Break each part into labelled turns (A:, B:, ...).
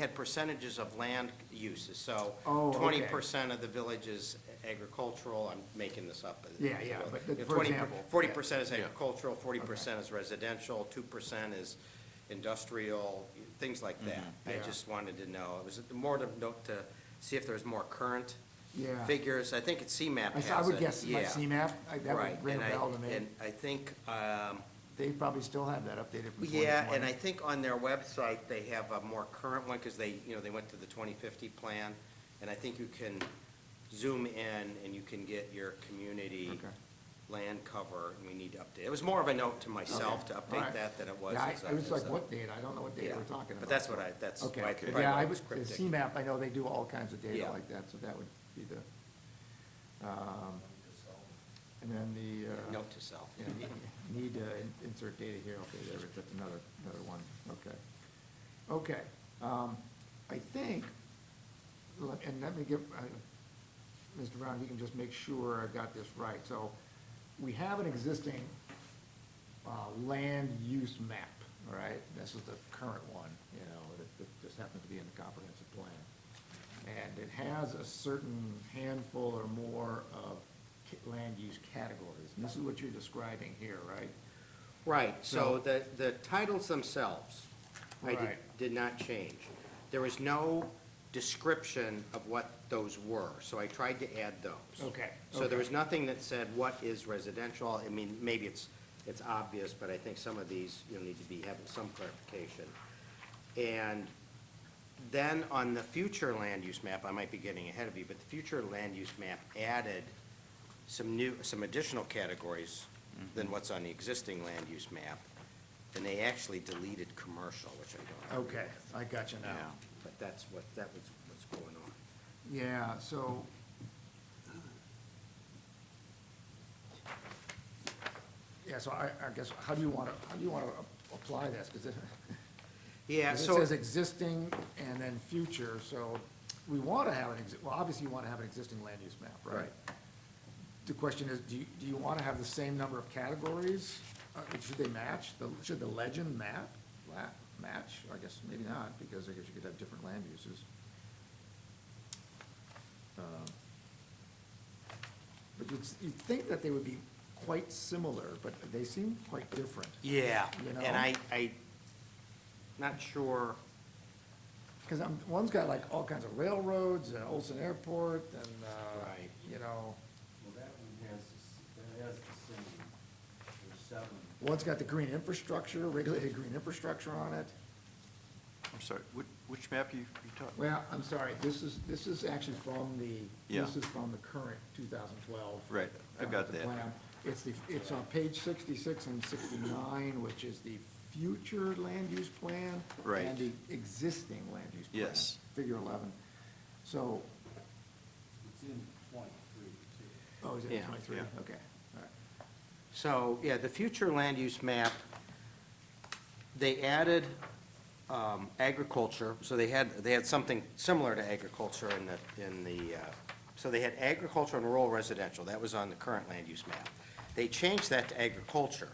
A: had percentages of land uses, so
B: Oh,
A: twenty
B: okay.
A: percent of the village is agricultural, I'm making this up. as-
B: Yeah,
A: as
B: yeah,
A: well.
B: but the-
A: You know,
B: for
A: 20
B: example,
A: Forty
B: yeah.
A: percent is agricultural, forty percent is residential, two percent is industrial, things like that. I
B: Yeah.
A: just wanted to know, it was more to note to see if there's more current
B: Yeah.
A: figures, I think it's CMAP
B: I
A: has
B: saw- I would
A: it.
B: guess my
A: Yeah.
B: CMAP, I- that
A: Right,
B: would ring
A: and
B: a
A: I-
B: bell to me.
A: And I think, um,
B: They probably still have that updated from
A: yeah, and I
B: 2020.
A: think on their website, they have a more current one, because they, you know, they went to the twenty fifty plan, and I think you can zoom in and you can get your community
B: Okay.
A: land cover, and we need to update. It was more of a note to myself to
B: Okay, all
A: update
B: right.
A: that than it was.
B: Yeah, I
A: as a-
B: I was
A: as
B: like,
A: a-
B: what data? I don't know what data
A: Yeah,
B: we're talking about.
A: But that's what I, that's
B: Okay.
A: why I
B: But
A: probably
B: Yeah, I
A: was
B: was, the
A: cryptic.
B: CMAP, I know they do all kinds of data
A: Yeah.
B: like that, so that would be the, um, and then the. uh,
A: Note to self.
B: yeah, Need to in- insert data here, okay, there, it- that's another, another one, okay. Okay, um, I think, let- and let me give, uh, Mr. Brown, you can just make sure I've got this right. So we have an existing uh, land use map, all right? This is the current one, you know, that- that just happens to be in the comprehensive plan. And it has a certain handful or more of ca- land use categories. And this is what you're describing here, right?
A: Right, so
B: So-
A: the, the titles themselves, I did,
B: Right.
A: did not change. There was no description of what those were, so I tried to add those.
B: Okay,
A: So there
B: okay.
A: was nothing that said what is residential, I mean, maybe it's, it's obvious, but I think some of these, you'll need to be having some clarification. And then on the future land use map, I might be getting ahead of you, but the future land use map added some new, some additional categories
B: Mm-hmm.
A: than what's on the existing land use map. And they actually deleted commercial, which I don't.
B: Okay, I got you now.
A: But that's what, that was what's going on.
B: Yeah, so. Yeah, so I, I guess, how do you want to, how do you want to apply this? Because it 'cause
A: Yeah,
B: it
A: so.
B: says existing and then future, so we want to have an, exi- well, obviously you want to have an existing land use map, right?
A: Right.
B: The question is, do you, do you want to have the same number of categories? Uh, Should they match? The- Should the legend map, la- match? I guess maybe not, because I guess you could have different land uses. Um, But you'd, s- you'd think that they would be quite similar, but they seem quite different.
A: Yeah,
B: You know?
A: and I, I, not sure,
B: Because I'm, one's got like all kinds of railroads and Olson Airport and, uh,
A: Right.
B: you know,
C: Well, that one has, the s- that has the same, there's seven.
B: one's got the green infrastructure, regulated green infrastructure on it.
D: I'm sorry, which, which map you, you talking?
B: Well, I'm sorry, this is, this is actually from the, this
D: Yeah.
B: is from the current 2012.
D: Right, I've got
B: comprehensive
D: that.
B: uh, plan. It's the, it's on page 66 and 69, which is the future land use plan.
D: Right.
B: And the existing land use plan.
D: Yes.
B: Figure 11. So,
C: It's in twenty-three, too.
B: oh, is it
A: Yeah,
B: 23?
D: yeah.
B: Okay, all right.
A: so, yeah, the future land use map, they added um, agriculture, so they had, they had something similar to agriculture in the, in the, uh, so they had agriculture and rural residential, that was on the current land use map. They changed that to agriculture.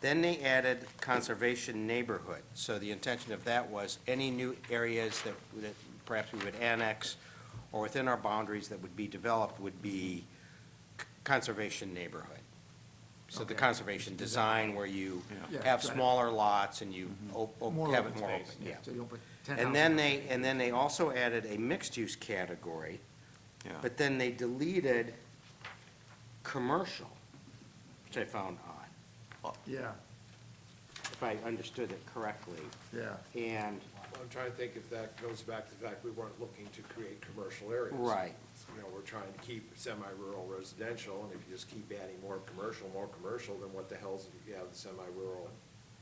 A: Then they added conservation neighborhood, so the intention of that was any new areas that, that perhaps we would annex or within our boundaries that would be developed would be c- conservation neighborhood. So the
B: Okay.
A: conservation design where you
B: Yeah.
A: have
B: Yeah. Mm-hmm.
A: smaller lots and you op-
D: Oh,
A: op-
B: More
A: have
B: open
A: it more open,
B: space,
A: yeah.
B: So you don't put 10
A: And then
B: houses.
A: they, and then they also added a mixed-use category,
D: Yeah.
A: but then they deleted commercial, which I found odd,
B: Yeah,
A: if I understood it correctly.
B: yeah,
A: And,
E: I'm trying to think if that goes back to the fact we weren't looking to create commercial areas.
A: Right.
E: You know, we're trying to keep semi-rural residential, and if you just keep adding more commercial, more commercial, then what the hell's, if you have the semi-rural,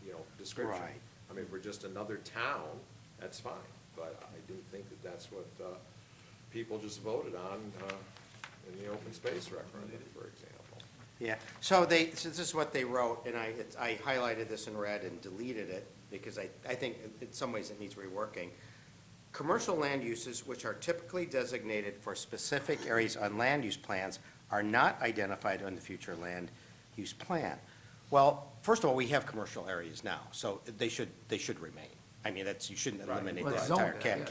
E: you know, description?
A: Right.
E: I mean, if we're just another town, that's fine, but I do think that that's what, uh, people just voted on, uh, in the open space referendum, for example.
A: yeah, so they, so this is what they wrote, and I, it's- I highlighted this in red and deleted it, because I, I think in some ways it needs reworking. Commercial land uses which are typically designated for specific areas on land use plans are not identified on the future land use plan. Well, first of all, we have commercial areas now, so they should, they should remain. I mean, that's, you shouldn't eliminate
B: Well,
A: that
B: zone
A: entire
B: that,
A: cat-
B: yeah.